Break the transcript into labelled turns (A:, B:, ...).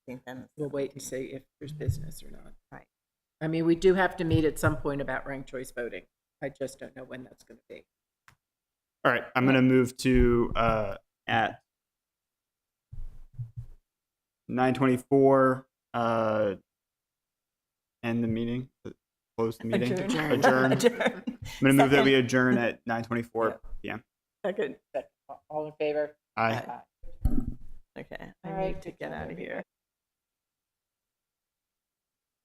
A: think then.
B: we'll wait and see if there's business or not.
A: Right.
B: I mean, we do have to meet at some point about ranked choice voting. I just don't know when that's going to be.
C: All right, I'm gonna move to uh, at nine twenty-four uh, end the meeting, close the meeting,
A: Adjourn.
C: adjourn. I'm
A: Adjourn.
C: gonna move that
A: Second.
C: we adjourn at nine twenty-four
A: Yeah.
C: p.m.